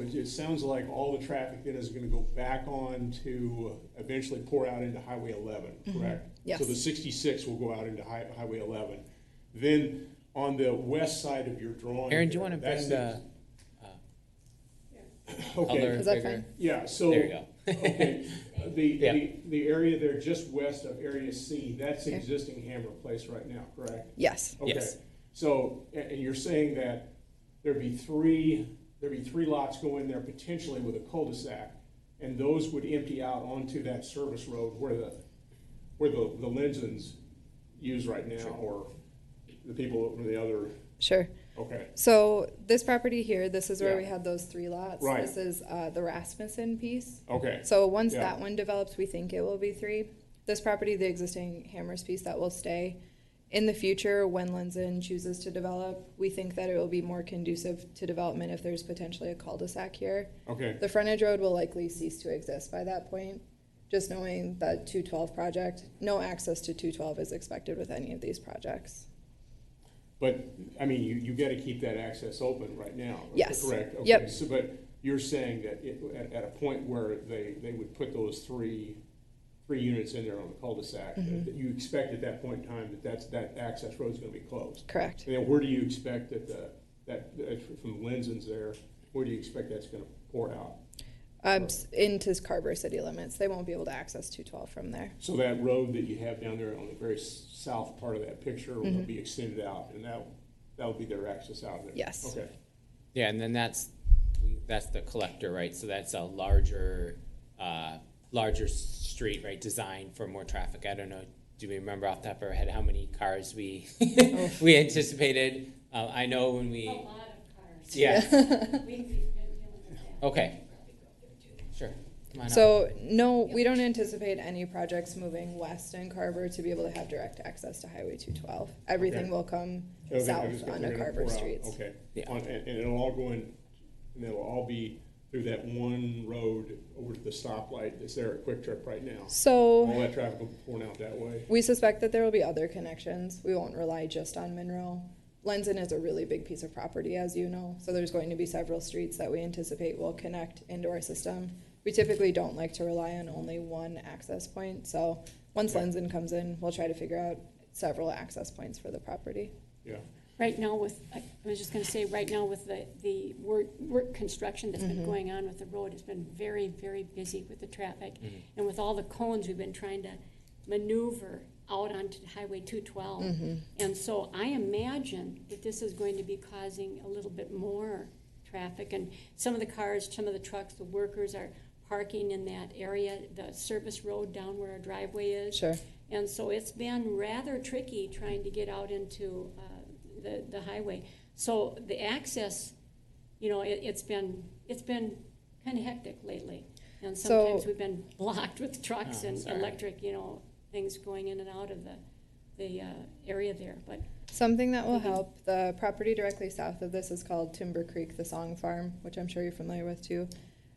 it, it sounds like all the traffic then is gonna go back on to eventually pour out into Highway eleven, correct? Mm-hmm. Yes. So the sixty-six will go out into Hi- Highway eleven. Then on the west side of your drawing. Aaron, do you there, want to that's bring the Okay, other Is that bigger? yeah, so. There you go. Okay, the, Yeah. the, the area there just west of Area C, that's Okay. existing Hammer Place right now, correct? Yes, Okay. Yes. So, a- and, you're saying that there'd be three, there'd be three lots go in there potentially with a cul-de-sac, and those would empty out onto that service road where the, where the, the Lenzins use right now, or the people from the other, sure. okay, So this property here, this is where we Yeah. had those three lots. Right. This is uh, the Rasmussen piece. okay, So once Yeah. that one develops, we think it will be three. This property, the existing Hammers piece, that will stay. In the future, when Lenzen chooses to develop, we think that it will be more conducive to development if there's potentially a cul-de-sac here. okay, The frontage road will likely cease to exist by that point, just knowing that 212 project, no access to 212 is expected with any of these projects. but, I mean, you, you gotta keep that access open right now, Yes. correct? Okay, Yep. So, but you're saying that it, at, at a point where they, they would put those three, three units in there on the cul-de-sac, that Mm-hmm. that you expect at that point in time that that's, that access road's gonna be closed? Correct. And then where do you expect that the, that, that from Lenzins there, where do you expect that's gonna pour out? Um, s- into Carver city limits. They won't be able to access 212 from there. So that road that you have down there on the very s- south part of that picture Mm-hmm. will be extended out, and that, that will be their access out of there? Yes. Okay, Yeah, and then that's, that's the collector, right? So that's a larger, uh, larger street, right, designed for more traffic. I don't know, do we remember off the top of our head how many cars we, Oh. we anticipated? Uh, I know when A we, lot of cars. yeah, We- We've been dealing with that. okay, Probably go up there too. sure. Come on up. So, no, we don't anticipate any projects moving west in Carver to be able to have direct access to Highway 212. Everything Okay. will come Okay, they're just south gonna- onto they're gonna Carver pour out, streets. Okay. Yeah. On- And, and it'll all go in, and it'll all be through that one road over to the stoplight that's there at Quick Trip right now. All So, that traffic will be pouring out that way. we suspect that there will be other connections. We won't rely just on Monroe. Lenzen is a really big piece of property, as you know, so there's going to be several streets that we anticipate will connect into our system. We typically don't like to rely on only one access point, so once Lenzen comes in, we'll try to figure out several access points for the property. Yeah, Right now with, I I was just gonna say, right now with the, the work, work construction that's been going on with the road, it's been very, very busy with the traffic. And with all the cones, we've been trying to maneuver out onto Highway two twelve. And so I imagine that this is going to be causing a little bit more traffic. And some of the cars, some of the trucks, the workers are parking in that area, the service road down where our driveway is. Sure. And so it's been rather tricky trying to get out into uh, the, the highway. So the access, you know, it, it's been, it's been kind of hectic lately. And So- sometimes we've been blocked with trucks Oh, and sorry. electric, you know, things going in and out of the, the uh, area there. But Something that will help, the property directly south of this is called Timber Creek, the Song Farm, which I'm sure you're familiar with too.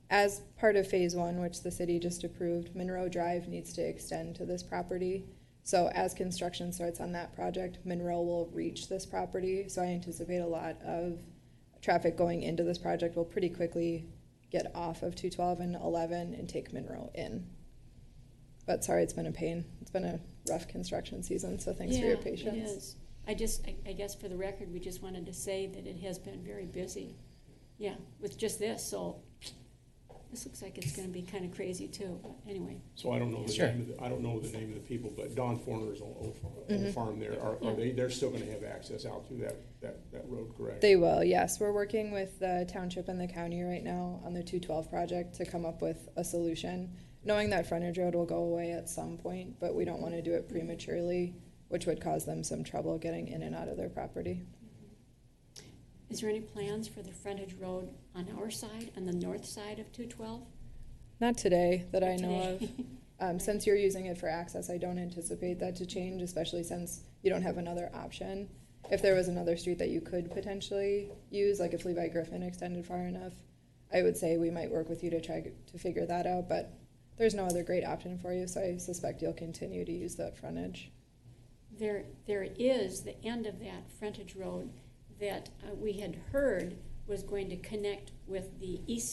As part of phase one, which the city just approved, Monroe Drive needs to extend to this property. So as construction starts on that project, Monroe will reach this property, so I anticipate a lot of traffic going into this project will pretty quickly get off of two twelve and eleven and take Monroe in. But sorry, it's been a pain. It's been a rough construction season, so thanks for Yeah, your it patience. is. I just, I- I guess for the record, we just wanted to say that it has been very busy, yeah, with just this, so this looks like it's gonna be kind of crazy too, but anyway. so I don't know the Sure. name, of the- I don't know the name of the people, but Don Forner's on Old Farm- Mm-hmm. Old Farm there, are, are they, they're still gonna have access out through that, that, that road, correct? They will, yes. We're working with the township and the county right now on the two twelve project to come up with a solution. Knowing that frontage road will go away at some point, but we don't wanna do it prematurely, which would cause them some trouble getting in and out of their property. Is there any plans for the frontage road on our side, on the north side of two twelve? Not today, that I know of. Today? Um, since you're using it for access, I don't anticipate that to change, especially since you don't have another option. If there was another street that you could potentially use, like if Levi Griffin extended far enough, I would say we might work with you to try to figure that out, but there's no other great option for you, so I suspect you'll continue to use that frontage. There, there is the end of that frontage road that uh, we had heard was going to connect with the east